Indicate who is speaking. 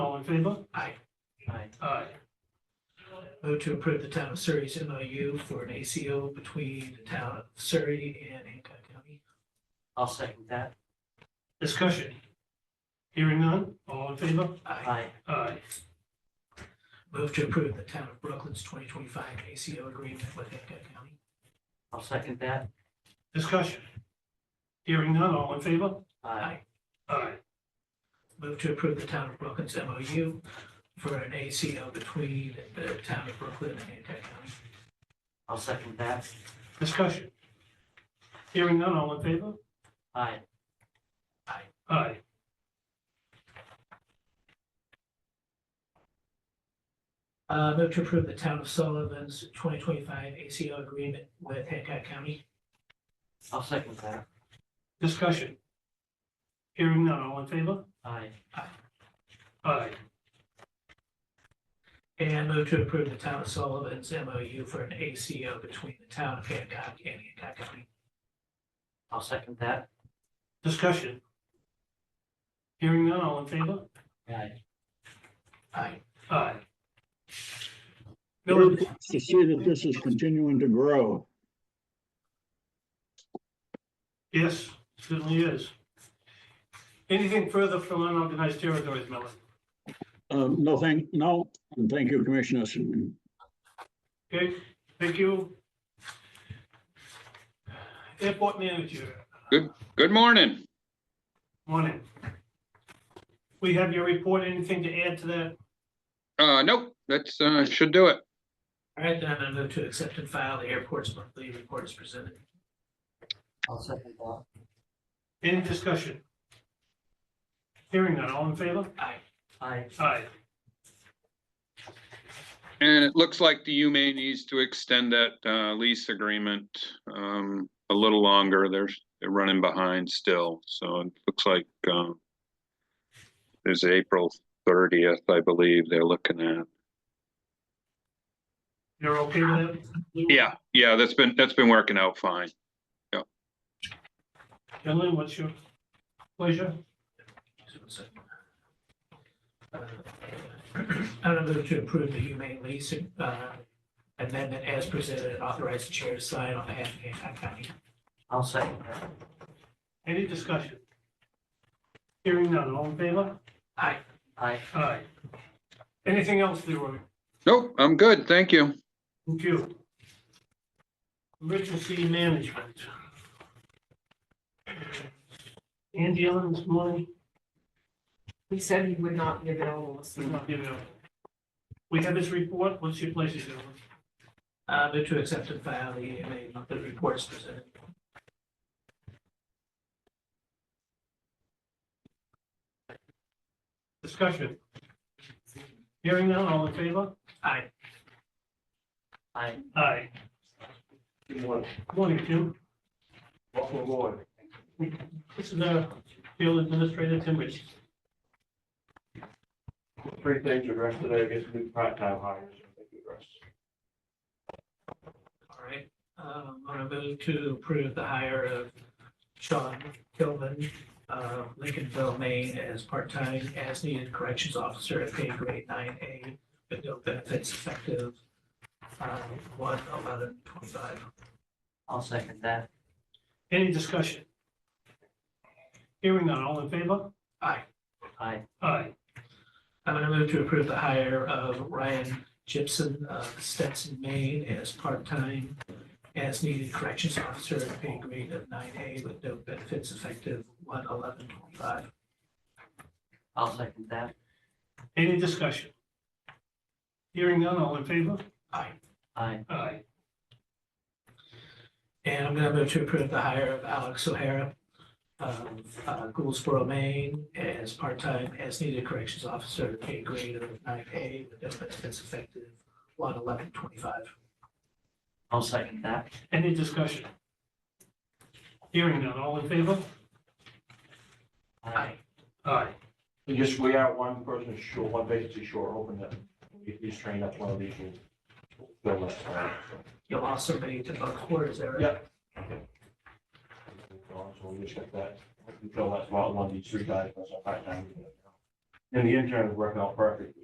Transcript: Speaker 1: in favor?
Speaker 2: Aye.
Speaker 1: Aye.
Speaker 2: Aye. Vote to approve the town of Surrey's MOU for an ACO between the town of Surrey and Hancock County.
Speaker 1: I'll second that.
Speaker 3: Discussion. Hearing none, all in favor?
Speaker 2: Aye.
Speaker 1: Aye.
Speaker 3: Aye.
Speaker 2: Move to approve the town of Brooklyn's twenty twenty-five ACO agreement with Hancock County.
Speaker 1: I'll second that.
Speaker 3: Discussion. Hearing none, all in favor?
Speaker 1: Aye.
Speaker 3: Aye.
Speaker 2: Move to approve the town of Brooklyn's MOU for an ACO between the town of Brooklyn and Hancock County.
Speaker 1: I'll second that.
Speaker 3: Discussion. Hearing none, all in favor?
Speaker 1: Aye.
Speaker 3: Aye.
Speaker 2: Uh, move to approve the town of Sullivan's twenty twenty-five ACO agreement with Hancock County.
Speaker 1: I'll second that.
Speaker 3: Discussion. Hearing none, all in favor?
Speaker 1: Aye.
Speaker 3: Aye.
Speaker 2: And move to approve the town of Sullivan's MOU for an ACO between the town of Hancock and Hancock County.
Speaker 1: I'll second that.
Speaker 3: Discussion. Hearing none, all in favor?
Speaker 1: Aye.
Speaker 2: Aye.
Speaker 3: Aye. Bill,
Speaker 4: Good To see that this is continuing to grow.
Speaker 3: yes, certainly is. Anything further from unorganized territories, Miller?
Speaker 4: Um, no, thank, no, and thank you, Commissioners.
Speaker 3: Okay, thank you. Airport manager,
Speaker 5: Good morning.
Speaker 3: morning. We have your report, anything to add to that?
Speaker 5: Uh, nope, that's, uh, should do it.
Speaker 2: All right, then I'm gonna move to accept and file the airport's monthly report as presented.
Speaker 1: I'll second that.
Speaker 3: Any discussion? Hearing none, all in favor?
Speaker 2: Aye.
Speaker 1: Aye.
Speaker 3: Aye.
Speaker 5: And it looks like the UMA needs to extend that, uh, lease agreement, um, a little longer. They're, they're running behind still, so it looks like, um, there's April thirtieth, I believe they're looking at.
Speaker 3: You're okay with that? Lou?
Speaker 5: Yeah, yeah, that's been, that's been working out fine.
Speaker 3: Gentlemen, what's your pleasure?
Speaker 2: Just one second. Uh, I'm gonna move to approve the humane lease uh, amendment as presented and authorize the chair to sign on behalf of Hancock County.
Speaker 1: I'll second that.
Speaker 3: Any discussion? Hearing none, all in favor?
Speaker 2: Aye.
Speaker 1: Aye.
Speaker 3: Aye. Anything else, Leroy?
Speaker 5: Nope, I'm good, thank you.
Speaker 3: Thank you. Emergency management. Andy Ellen this morning,
Speaker 6: He said he would not give it all us.
Speaker 3: we not give it up. We have his report, what's your pleasure, gentlemen?
Speaker 2: Uh, move to accept and file the humane monthly report as presented.
Speaker 3: Discussion. Hearing none, all in favor?
Speaker 2: Aye.
Speaker 1: Aye.
Speaker 3: Aye.
Speaker 7: Good morning.
Speaker 3: Morning, Jim.
Speaker 7: Welcome aboard.
Speaker 3: This is our field administrator, Tim Rich.
Speaker 7: Three things addressed today, I guess new part-time hires. I think we addressed.
Speaker 2: All right, um, I'm gonna move to approve the hire of Sean Kilman, uh, Lincolnville, Maine, as part-time as needed corrections officer at pay grade nine A, with no benefits effective, uh, one eleven twenty-five.
Speaker 1: I'll second that.
Speaker 3: Any discussion? Hearing none, all in favor?
Speaker 2: Aye,
Speaker 1: Aye.
Speaker 3: Aye.
Speaker 2: I'm gonna move to approve the hire of Ryan Gibson of Stetson, Maine, as part-time as needed corrections officer at pay grade of nine A, with no benefits effective one eleven twenty-five.
Speaker 1: I'll second that.
Speaker 3: Any discussion? Hearing none, all in favor?
Speaker 2: Aye.
Speaker 1: Aye.
Speaker 3: Aye.
Speaker 2: And I'm gonna move to approve the hire of Alex O'Hara of uh, Gouldsboro, Maine, as part-time as needed corrections officer, pay grade of nine A, with no benefits effective one eleven twenty-five.
Speaker 1: I'll second that.
Speaker 3: Any discussion? Hearing none, all in favor?
Speaker 1: Aye.
Speaker 3: Aye.
Speaker 7: We just, we are one person short, one vacancy short, hoping that if he's trained up, one of these will fill that. spot, so.
Speaker 2: You'll also be to both quarters there.
Speaker 7: Yeah. So we just got that, we fill that spot, one of these three guys, that's our part-time. And the intern is working out perfectly.